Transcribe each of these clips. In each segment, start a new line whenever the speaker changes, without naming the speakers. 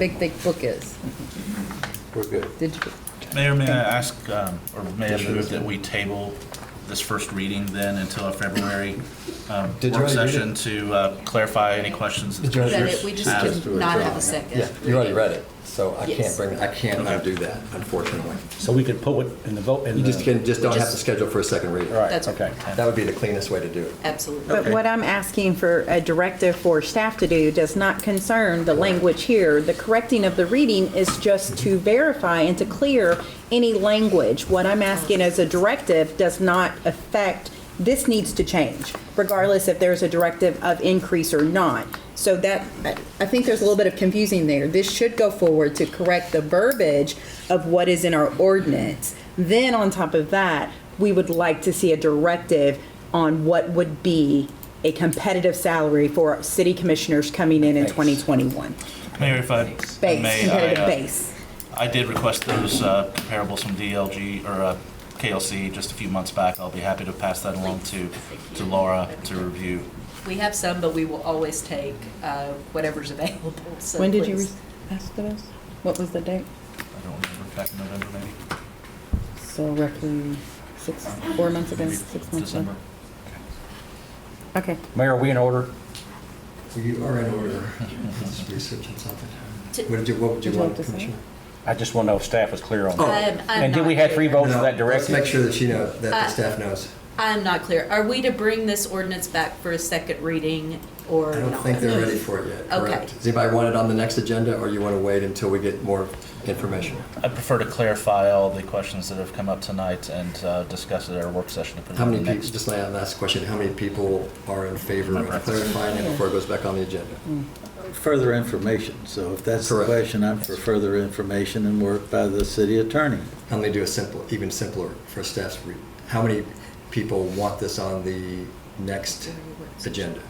big, thick book is.
We're good.
Digital.
Mayor, may I ask, um, or may I move that we table this first reading then until our February um,
Did you
work
already read
session to uh, clarify any questions?
Did you already
That it, we just
Add.
did not have a second.
Yeah, you already read it, so I can't
Yes.
bring
I
that.
can't undo that, unfortunately.
So we could put it in the vote, in
You
the...
just can, just don't have to
Just-
schedule for a second reading.
All right,
That's
okay.
That would be the cleanest way to do it.
Absolutely.
But what I'm asking for a directive for staff to do does not concern the language here. The correcting of the reading is just to verify and to clear any language. What I'm asking as a directive does not affect, this needs to change, regardless if there's a directive of increase or not.
So that, I- I think there's a little bit of confusing there. This should go forward to correct the verbiage of what is in our ordinance. Then on top of that, we would like to see a directive on what would be a competitive salary for city commissioners coming in in 2021.
Mayor, if I
Base,
may, I,
competitive
uh,
base.
I did request those uh, comparables from DLG or uh, KLC just a few months back. I'll be happy to pass that along to, to Laura to review.
We have some, but we will always take uh, whatever's available, so
When did you re-
please.
ask for this? What was the date?
I don't remember, back in November maybe?
So roughly six, four months ago,
Maybe
six months ago.
December.
Okay.
Mayor, are we in order?
You are in order. Just researching something.
To- Um,
What did you, what would you
Would you
want,
like to say?
Commissioner?
I just want to know if staff was clear on
Oh.
that.
I'm- I'm
And did we
not
have three
clear.
votes for that
No, Let's
directive?
make sure that she knows, that the
Uh,
staff knows.
I'm not clear. Are we to bring this ordinance back for a second reading or
I
not?
don't think they're ready for it yet,
Okay.
correct? Does anybody want it on the next agenda, or you want to wait until we get more information?
I prefer to clarify all the questions that have come up tonight and uh, discuss it at our work session. to put it
How
on
many
the
people,
next-
just my last question, how many people are in favor of clarifying it before it goes back on the agenda?
Further information, so if that's the
Correct.
question, I'm for further information and work by the city attorney.
How many do a simple, even simpler for staff's read? How many people want this on the next agenda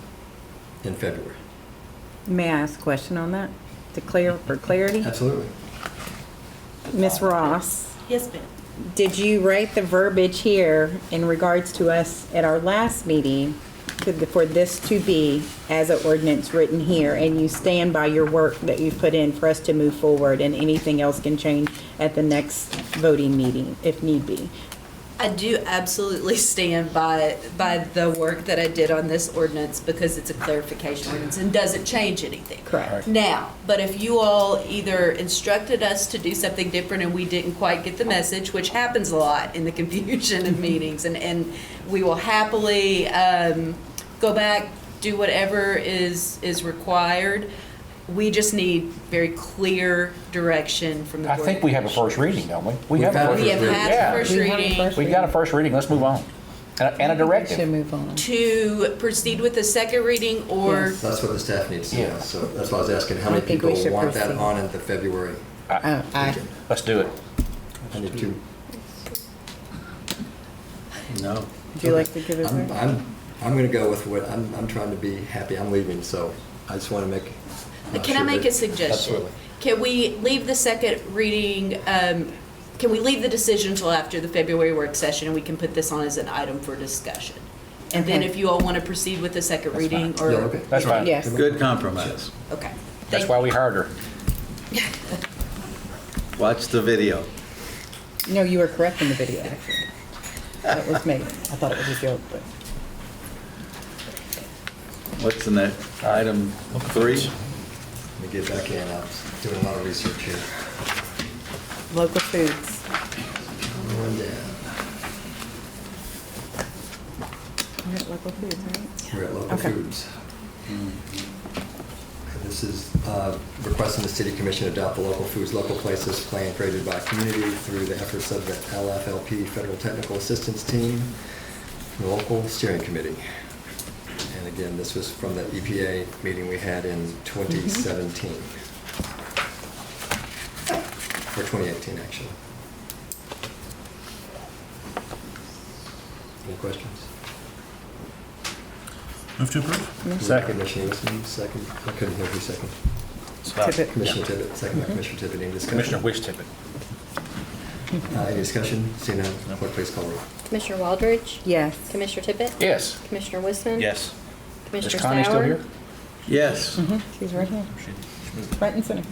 in February?
May I ask a question on that? To clear, for clarity?
Absolutely.
Ms. Ross?
Yes, ma'am.
Did you write the verbiage here in regards to us at our last meeting to- for this to be as an ordinance written here? And you stand by your work that you've put in for us to move forward and anything else can change at the next voting meeting if need be?
I do absolutely stand by, by the work that I did on this ordinance because it's a clarification ordinance and doesn't change anything.
Correct.
Now, but if you all either instructed us to do something different and we didn't quite get the message, which happens a lot in the confusion of meetings, and, and we will happily um, go back, do whatever is, is required. We just need very clear direction from the
I
board.
think we have a first reading, don't we? We have
We've
a first
We have
reading.
had the first
Yeah,
We have a
reading.
first
we've got a first reading, let's move on. And a- and a
Should
directive.
move on.
to proceed with the second reading or
So That's what the staff needs to know,
Yeah.
so that's why I was asking, how
I
many
think we
people
should
want that
proceed.
on at the February?
Uh,
Oh, I,
Let's do it.
I need two.
No.
Would you like to give it?
I'm, I'm, I'm gonna go with what, I'm, I'm trying to be happy, I'm leaving, so I just want to make. not
Can I
sure
make
that-
a suggestion?
Absolutely.
Can we leave the second reading, um, can we leave the decision until after the February work session, and we can put this on as an item for discussion? And then
Okay.
if you all want to proceed with the second
That's fine.
reading,
Yeah,
or,
okay.
That's fine.
Yes.
Good compromise.
okay.
That's
Thank-
why we hired her.
Watch the video.
no, you were correct in the video, actually. That was me. I thought it was a joke, but.
What's the next, item three?
Let me get back in, I'm doing a lot of research here.
Local foods.
Going down.
We're at local foods, right?
We're at local
Okay.
foods. And This is uh, requesting the city commission adopt the local foods, local places plan created by community through the efforts of the LFLP Federal Technical Assistance Team, the local steering committee. And again, this was from the EPA meeting we had in 2017. Or 2018, actually. Any questions?
Move to approve?
Second. Commissioner Emerson, second, I couldn't hear who second.
Scott?
Tippit.
Commissioner Tippett, second by Commissioner Tippett, any discussion?
Commissioner Wish Tippett.
Uh, Any discussion? Seeing none, clerk, please call roll.
Commissioner Waldridge?
Yes.
Commissioner Tippett?
Yes.
Commissioner Wiseman?
Yes.
Commissioner
Is
Sauer?
Connie still here?
Yes.
She's right here. Right in center.